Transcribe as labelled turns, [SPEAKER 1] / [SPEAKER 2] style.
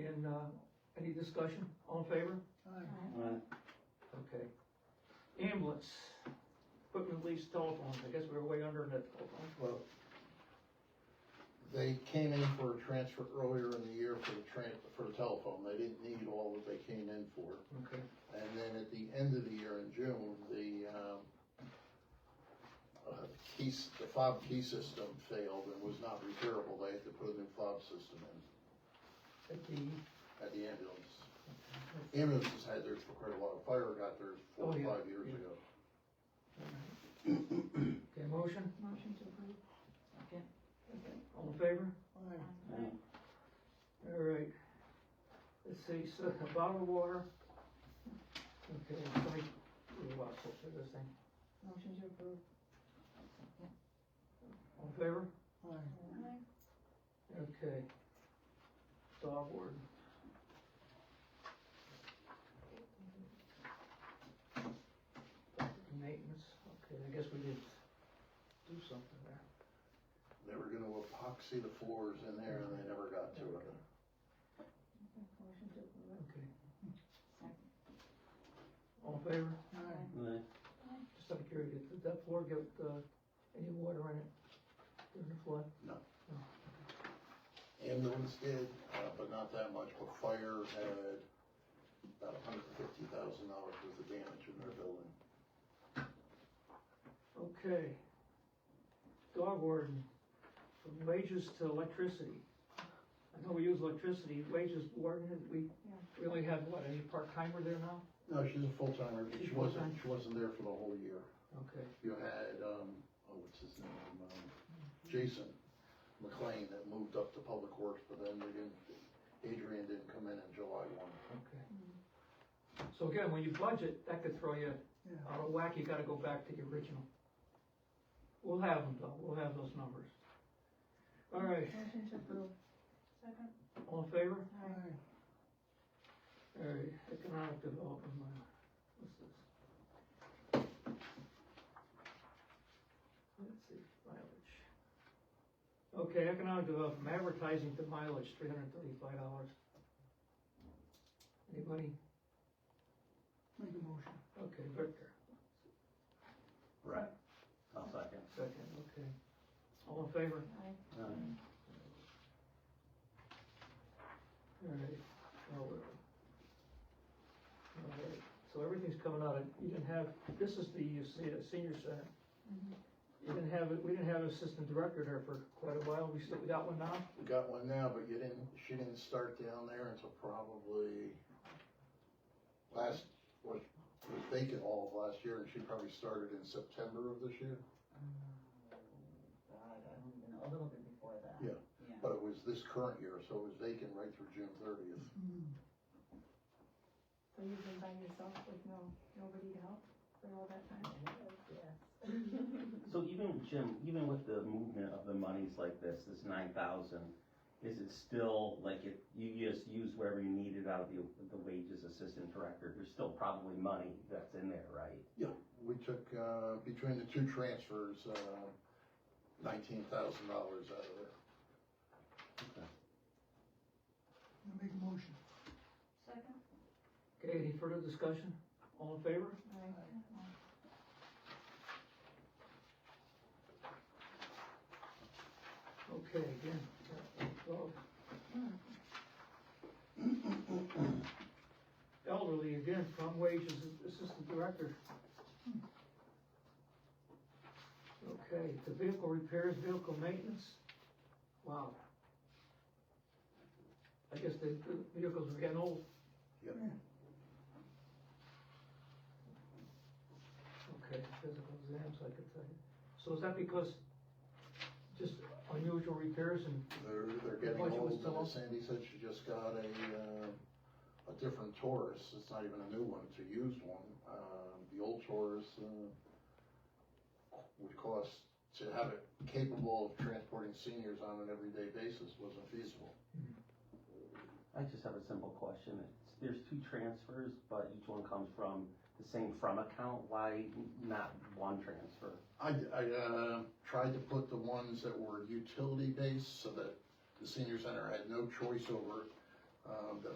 [SPEAKER 1] Uh, any discussion? All in favor? Okay. Ambulance, equipment lease telephones, I guess we were way under net telephones.
[SPEAKER 2] Well, they came in for a transfer earlier in the year for the tran, for the telephone, they didn't need all that they came in for.
[SPEAKER 1] Okay,
[SPEAKER 2] And then at the end of the year in June, the, um, uh, key, s- the fob key system failed and was not repairable, they had to put a new fob system in
[SPEAKER 1] at the,
[SPEAKER 2] at the ambulance. Ambulances had theirs for quite a while, fire got theirs four
[SPEAKER 1] Oh,
[SPEAKER 2] or
[SPEAKER 1] yeah,
[SPEAKER 2] five years
[SPEAKER 1] yeah.
[SPEAKER 2] ago.
[SPEAKER 1] okay, motion?
[SPEAKER 3] Motion to approve.
[SPEAKER 1] All in favor?
[SPEAKER 3] Aye.
[SPEAKER 1] All right. Let's see, so bottled water. Okay, somebody, we lost hope for this thing.
[SPEAKER 3] Motion to approve.
[SPEAKER 1] All in favor?
[SPEAKER 3] Aye.
[SPEAKER 1] Okay. Dog ward. Maintenance, okay, I guess we did do something there.
[SPEAKER 2] They were gonna epoxy the floors in there and they never got to it.
[SPEAKER 3] Motion to approve.
[SPEAKER 1] Okay,
[SPEAKER 3] Second.
[SPEAKER 1] all in favor?
[SPEAKER 3] Aye.
[SPEAKER 1] Just out of curiosity, did that floor get, uh, any water in it during the flood?
[SPEAKER 2] Ambulance did, uh, but not that much, but fire had about hundred and fifty thousand dollars worth of damage in their building.
[SPEAKER 1] Okay. Dog warden, from wages to electricity. I know we use electricity, wages warden, and we really have, what, any part-timer there now?
[SPEAKER 2] No, she's a full-timer, but she
[SPEAKER 1] She's
[SPEAKER 2] wasn't,
[SPEAKER 1] full-time.
[SPEAKER 2] she wasn't there for the whole year.
[SPEAKER 1] Okay,
[SPEAKER 2] You had, um, oh, what's his name, um, Jason McLean that moved up to Public Works, but then they didn't, Adrian didn't come in in July one.
[SPEAKER 1] okay.
[SPEAKER 3] Hmm.
[SPEAKER 1] So again, when you budget, that could throw you out of whack, you gotta go back to the original. We'll have them though, we'll have those numbers. All right,
[SPEAKER 3] Motion to approve. Second.
[SPEAKER 1] all in favor?
[SPEAKER 3] Aye.
[SPEAKER 1] All right, economic development, uh, what's this? Let's see, mileage. Okay, economic development, advertising to mileage, three hundred and thirty-five dollars. Anybody?
[SPEAKER 4] Make a motion.
[SPEAKER 1] Okay, Victor,
[SPEAKER 5] Right. I'll second.
[SPEAKER 1] second, okay. All in favor?
[SPEAKER 3] Aye.
[SPEAKER 1] All right, now where are we? All right, so everything's coming out, of you didn't have, this is the uh, se- uh, senior center.
[SPEAKER 3] Mhm.
[SPEAKER 1] You didn't have, it. we didn't have an assistant director there for quite a while, we still, we got one now?
[SPEAKER 2] We got one now, but you didn't, she didn't start down there until probably last, was, was vacant all of last year, and she probably started in September of this year.
[SPEAKER 4] God, I don't even know, a little bit before that.
[SPEAKER 2] Yeah.
[SPEAKER 4] Yeah.
[SPEAKER 2] But it was this current year, so it was vacant right through June thirtieth.
[SPEAKER 3] Mm-hmm. So you've been by yourself with no, nobody to help for all that time?
[SPEAKER 4] Yes.
[SPEAKER 5] So even, Jim, even with the movement of the monies like this, this nine thousand, is it still like it, you just use wherever you need it out of the, the wages assistant director? There's still probably money that's in there, right?
[SPEAKER 2] We took, uh, between the two transfers, uh, nineteen thousand dollars out of it.
[SPEAKER 4] Make a motion.
[SPEAKER 3] Second.
[SPEAKER 1] Okay, any further discussion? All in favor?
[SPEAKER 3] Aye.
[SPEAKER 1] Okay, uh, again, twelve. Elderly, again, from wages, assistant director. Okay, the vehicle repairs, vehicle maintenance, wow. I guess the the vehicles are getting old.
[SPEAKER 2] Yep.
[SPEAKER 1] Okay, physical exams, I could tell you. So is that because just unusual repairs and
[SPEAKER 2] They're, they're
[SPEAKER 1] Why
[SPEAKER 2] getting
[SPEAKER 1] don't you
[SPEAKER 2] old,
[SPEAKER 1] tell
[SPEAKER 2] and
[SPEAKER 1] us?
[SPEAKER 2] Sandy said she just got a, uh, a different Taurus, it's not even a new one, it's a used one. Um, the old Taurus, uh, would cost, to have it capable of transporting seniors on an everyday basis wasn't feasible.
[SPEAKER 5] I just have a simple question. It's- There's two transfers, but each one comes from the same from account. Why not one transfer?
[SPEAKER 2] I, I, uh, tried to put the ones that were utility-based so that the senior center had no choice over, um, the